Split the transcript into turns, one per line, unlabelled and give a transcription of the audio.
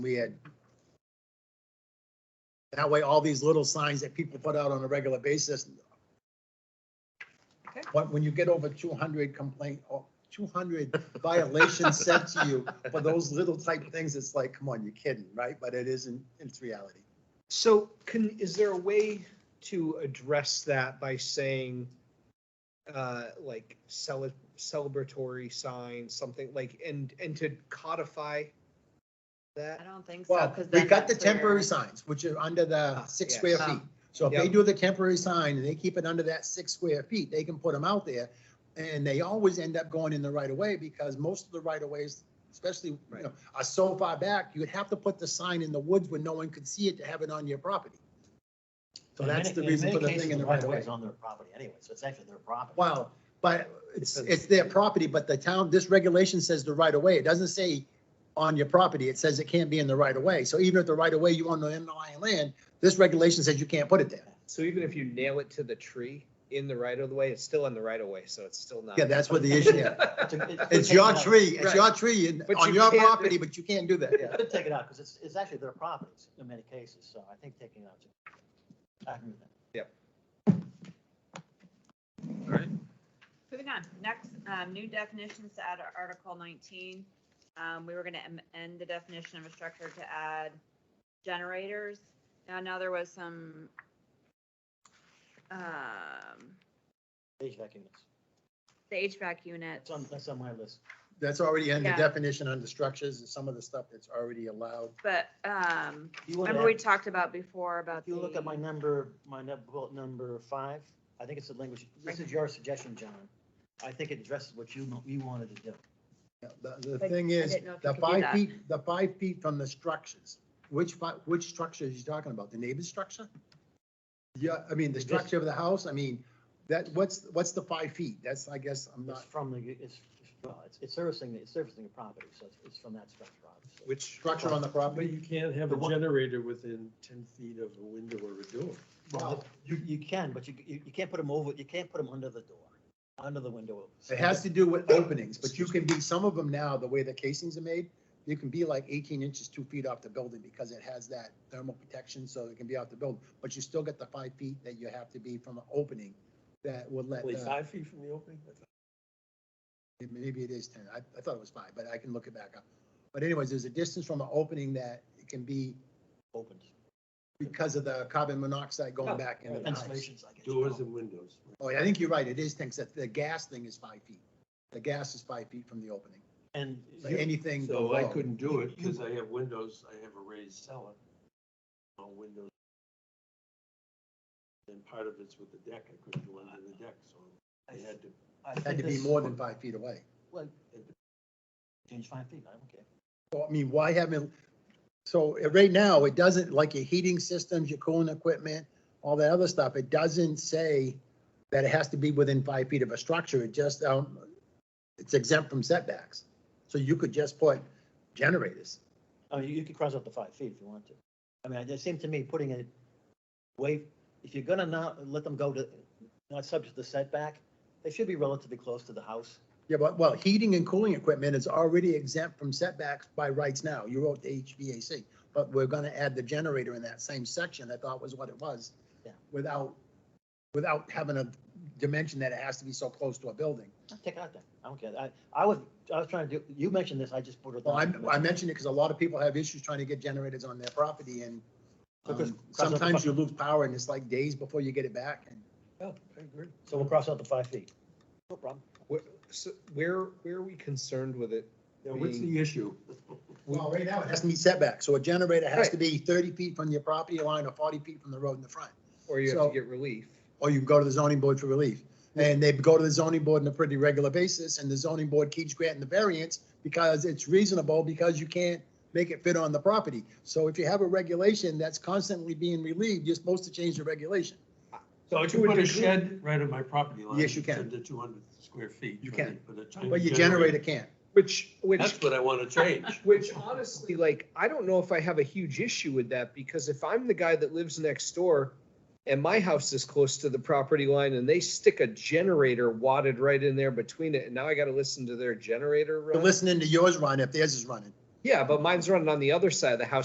we had. That way, all these little signs that people put out on a regular basis.
Okay.
But when you get over two hundred complaint, or two hundred violations sent to you for those little type things, it's like, come on, you're kidding, right? But it isn't, it's reality.
So can, is there a way to address that by saying, uh, like cele- celebratory signs, something like, and, and to codify
I
that?
don't think so,
Well,
because
we
then.
got the
that's where-
temporary signs, which are under the
Ah,
six
yes.
square
Oh.
feet. So if they
Yep.
do the temporary sign and they keep it under that six square feet, they can put them out there. And they always end up going in the right of way because most of the right of ways, especially, you
Right.
know, are so far back, you'd have to put the sign in the woods where no one could see it to have it on your property. So
In
that's
many-
the reason
many
for the
cases,
thing in the right of
right-of-way
way.
is on their property anyway, so it's actually their property.
Wow, but it's,
Because-
it's their property, but the town, this regulation says the right of way. It doesn't say on your property. It says it can't be in the right of way. So even if the right of way you own the underlying land, this regulation says you can't put it there.
So even if you nail it to the tree in the right of the way, it's still in the right of way, so it's still not.
Yeah, that's what the issue is.
It's a- it's-
It's
take
your
it out.
tree, it's your tree and
But
on
you
your
can't-
property, but you can't do that.
You
Yeah.
could take it out, because it's, it's actually their properties in many cases, so I think taking it out. is- I agree with that.
Moving on, next, um, new definitions to add to Article nineteen. Um, we were gonna em- end the definition of a structure to add generators. Now, now there was some, um,
HVAC units.
the HVAC units.
That's on, that's on my list.
That's already in the
Yeah.
definition under structures and some of the stuff that's already allowed.
But, um,
You want
remember we
to,
talked about before about
if you look at my
the,
number, my num- bullet number five, I think it's the language, this is your suggestion, John. I think it addresses what you, mo- you wanted to do.
Yeah, The, the
But
thing
I
is,
didn't know if
the
you could do
five
that.
feet, the five feet from the structures, which, fi- which structure is you talking about? The neighbor's structure? Yeah, I mean, the
Just-
structure of the house, I mean, that, what's, what's the five feet? That's, I guess, I'm
It's
not,
from the, it's, well, it's- it's servicing, it's servicing the property, so it's- it's from that structure, obviously.
Which.
structure on the property?
But you can't have
The
a
one-
generator within ten feet of a window or a door.
Uh,
Well, you, you can, but you, you you can't put them over, you can't put them under the door, under the window.
It has to do with openings, but you can be, some of them now, the way the casings are made, you can be like eighteen inches, two feet off the building because it has that thermal protection, so it can be off the building. But you still get the five feet that you have to be from an opening that would let,
Only
the-
five feet from the opening?
maybe it is ten, I, I thought it was five, but I can look it back up. But anyways, there's a distance from an opening that it can be
Opened.
because of the carbon monoxide going back into the house.
Ventilations, I guess. you
Doors
call
and windows.
Oh, yeah, I think you're right, it is ten, except the gas thing is five feet. The gas is five feet from the opening,
them. And
So
you-
anything
So I
below.
couldn't do it because I have windows, I have a raised cellar. On windows. And part of it's with the deck, I couldn't do it on the deck, so I had to,
I
Had
think
to be
this-
more than five feet away.
Well, Change five feet, I don't care.
Well, I mean, why haven't, so uh, right now, it doesn't, like your heating systems, your cooling equipment, all that other stuff, it doesn't say that it has to be within five feet of a structure, it just, um, it's exempt from setbacks. So you could just put generators.
I mean, you- you could cross out the five feet if you want to. I mean, it seemed to me putting it way, if you're gonna not let them go to, not subject to setback, they should be relatively close to the house.
Yeah, but, well, heating and cooling equipment is already exempt from setbacks by rights now, you wrote the HVAC, but we're gonna add the generator in that same section, I thought was what it was.
Yeah.
Without, without having a dimension that it has to be so close to a building.
Take it out that, I don't care. I, I was, I was trying to do, you mentioned this, I just put it.
Well, I,
down.
I mentioned it because a lot of people have issues trying to get generators on their property and um,
Because- because of the
sometimes
fu-
you lose power and it's like days before you get it back. And
oh, I agree.
So we'll cross out the five feet. No problem.
Where, so where, where are we concerned with it?
Now, what's the issue?
Well, right now, it has to meet setbacks. So a generator has to
Right.
be thirty feet from your property line or forty feet from the road in the front.
Or you have
So-
to get relief?
Or you can go to the zoning board for relief. And they go to the zoning board on a pretty regular basis and the zoning board keeps granting the variance because it's reasonable because you can't make it fit on the property. So if you have a regulation that's constantly being relieved, you're supposed to change the regulation.
So I
To
can
a
put a
degree.
shed right on my property line.
Yes, you can.
To two hundred square feet.
You
but
can.
I- But a tiny
But your generator can't.
Which, which
That's what I want to change.
Which honestly, like, I don't know if I have a huge issue with that because if I'm the guy that lives next door and my house is close to the property line and they stick a generator wadded right in there between it, and now I gotta listen to their generator
You're
run.
listening to yours run if theirs is running.
Yeah, but mine's running on the other side of the house